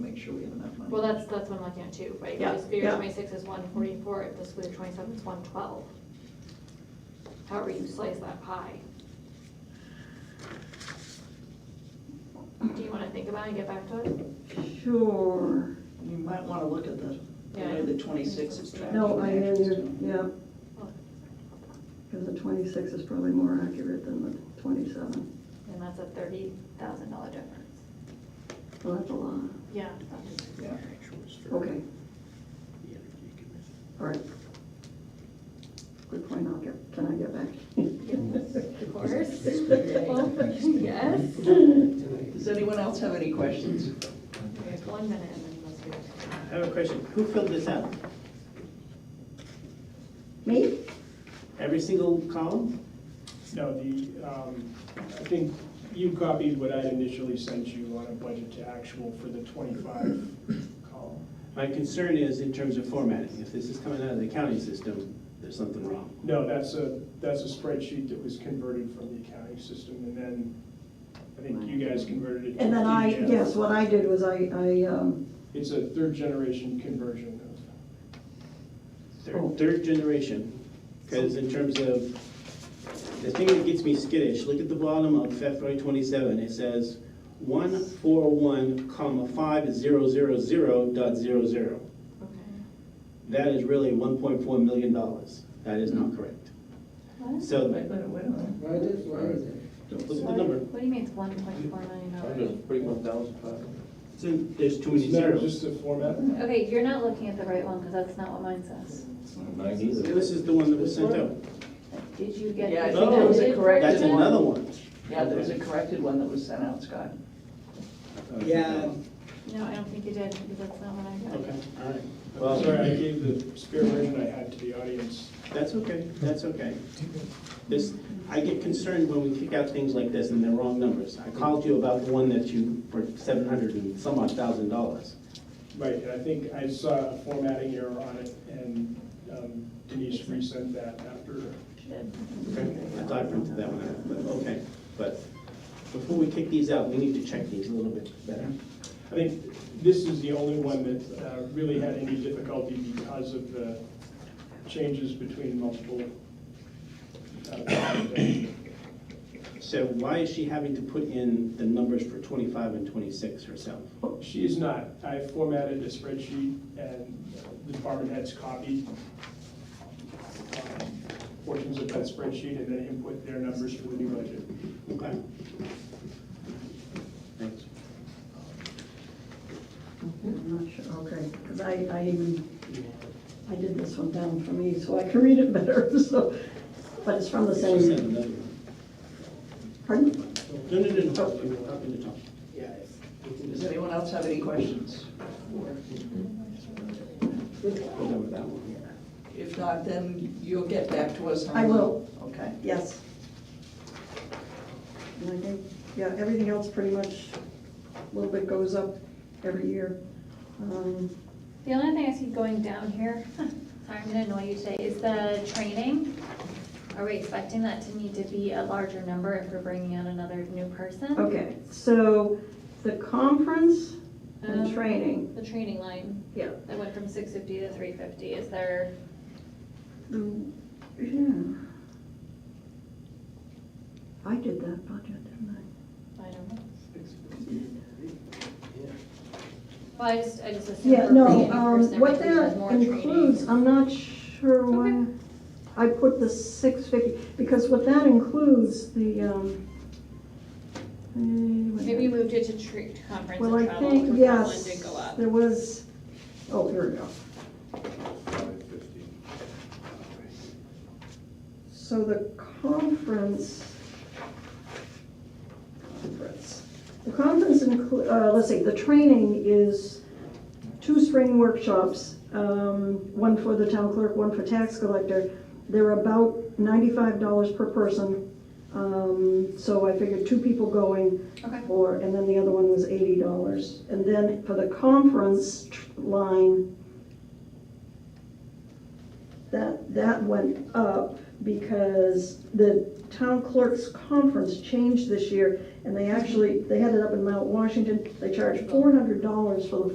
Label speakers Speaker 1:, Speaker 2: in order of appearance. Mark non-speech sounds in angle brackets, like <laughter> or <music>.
Speaker 1: sure we have enough money.
Speaker 2: Well, that's, that's what I'm looking at too, right?
Speaker 1: Yeah,
Speaker 2: You just figure
Speaker 1: yeah.
Speaker 2: twenty-six is one forty-four, if the school year twenty-seven is one twelve. However you slice that pie. Do you wanna think about it and get back to it?
Speaker 1: Sure, you might wanna look at the, the way
Speaker 2: Yeah.
Speaker 1: the twenty-six is tracked.
Speaker 3: No, I
Speaker 1: and
Speaker 3: am,
Speaker 1: actions
Speaker 3: you're-
Speaker 1: too.
Speaker 3: yeah. Because the twenty-six is probably more accurate than the twenty-seven.
Speaker 2: And that's a thirty thousand dollar difference.
Speaker 3: Well, Oh, that's a lot.
Speaker 2: Yeah.
Speaker 1: Yeah.
Speaker 3: Okay,
Speaker 4: The Energy Commission.
Speaker 3: all right. Good point, I'll get, can I get back? <laughs>
Speaker 2: Yes, of course. <laughs> Yes.
Speaker 1: Does anyone else have any questions?
Speaker 2: There's one minute and then let's do it.
Speaker 5: I have a question. Who filled this out?
Speaker 3: Me?
Speaker 5: Every single column?
Speaker 6: No, the, um, I think you copied what I initially sent you on a budget to actual for the 25 column.
Speaker 5: My concern is in terms of formatting. If this is coming out of the county system, there's something wrong.
Speaker 6: No, that's a, that's a spreadsheet that was converted from the accounting system, and then I think you guys converted it. to
Speaker 3: And then I,
Speaker 6: PDF.
Speaker 3: yes, what I did was I, I, um,
Speaker 6: It's a third-generation conversion Oh.
Speaker 5: Third, third generation, because in terms of, the thing that gets me skittish, look at the bottom of FY twenty-seven, it says one four one comma five zero zero zero dot zero zero.
Speaker 2: Okay.
Speaker 5: That is really one point four million dollars. That is not correct. So,
Speaker 1: Wait, wait, wait a minute.
Speaker 7: Why is, why is it?
Speaker 5: look at the number.
Speaker 2: What do you mean it's one point four million dollars?
Speaker 7: Forty-one thousand five.
Speaker 5: It's in- There's too
Speaker 6: of.
Speaker 5: many
Speaker 6: It's not
Speaker 5: zeros.
Speaker 6: just the format.
Speaker 2: Okay, you're not looking at the right one, because that's not what mine says.
Speaker 7: Mine
Speaker 5: This is the one that was sent out.
Speaker 2: Did you get?
Speaker 1: Yeah, I
Speaker 2: the
Speaker 5: think that was a
Speaker 2: updated
Speaker 1: corrected
Speaker 5: That's
Speaker 2: version?
Speaker 1: one.
Speaker 5: another one.
Speaker 1: Yeah, there was a corrected one that was sent out, Scott.
Speaker 5: Yeah.
Speaker 2: No, I don't think you did, because that's not what I got.
Speaker 5: Okay, all right.
Speaker 6: I'm Sorry,
Speaker 5: Well,
Speaker 6: I gave the spare version I had to the audience.
Speaker 5: that's okay, that's okay. This, I get concerned when we kick out things like this and they're wrong numbers. I called you about the one that you, for seven hundred and some odd thousand dollars.
Speaker 6: Right, and I think I saw a formatting error on it, and um, Denise resent that after.
Speaker 5: I thought I printed that one out, but okay. But before we kick these out, we need to check these a little bit better.
Speaker 6: I think this is the only one that uh, really had any difficulty because of the changes between multiple. uh, <coughs>
Speaker 5: So why is she having to put in the numbers for twenty-five and twenty-six herself?
Speaker 6: She is not. I formatted a spreadsheet, and the department heads copied um, portions of that spreadsheet and then input their numbers for the new budget.
Speaker 5: Okay? Thanks.
Speaker 3: I'm not sure, okay, because I, I even, I did this one down for me, so I can read it better, <laughs> so, but it's from the
Speaker 5: She sent
Speaker 3: same,
Speaker 5: another one.
Speaker 3: pardon?
Speaker 5: No, no, no, no, we were talking to Tom.
Speaker 1: Does anyone else have any questions?
Speaker 5: We're done with that one.
Speaker 1: If not, then you'll get back to us on.
Speaker 3: I will.
Speaker 1: Okay.
Speaker 3: Yes. And I think, yeah, everything else pretty much, a little bit goes up every year. Um,
Speaker 8: The only thing I see going down here, <laughs> sorry, I'm gonna annoy you today, is the training. Are we expecting that to need to be a larger number if we're bringing on another new person?
Speaker 3: Okay, so the conference and
Speaker 8: Um,
Speaker 3: training,
Speaker 8: The training line,
Speaker 3: yeah.
Speaker 8: that went from six fifty to three fifty, is there,
Speaker 3: the- yeah. I did that budget, didn't I?
Speaker 8: I don't know. Well, I just, I just assumed.
Speaker 3: Yeah,
Speaker 8: we're bringing
Speaker 3: no,
Speaker 8: in
Speaker 3: um,
Speaker 8: person,
Speaker 3: what
Speaker 8: everything has
Speaker 3: that
Speaker 8: more training.
Speaker 3: includes, I'm not sure why I put the six fifty, because what that includes, the, um. eh, what-
Speaker 8: Maybe we moved it to tre- to conference
Speaker 3: Well,
Speaker 8: and
Speaker 3: I
Speaker 8: travel,
Speaker 3: think,
Speaker 8: which that one
Speaker 3: yes,
Speaker 8: did go up.
Speaker 3: there was, oh, here we go. So the conference, conference, the conference include, uh, let's see, the training is two spring workshops, um, one for the town clerk, one for tax collector. They're about ninety-five dollars per person, um, so I figured two people going.
Speaker 8: Okay.
Speaker 3: Or, and then the other one was eighty dollars. And then for the conference tr- line, that, that went up because the town clerk's conference changed this year, and they actually, they had it up in Mount Washington, they charged four hundred dollars for the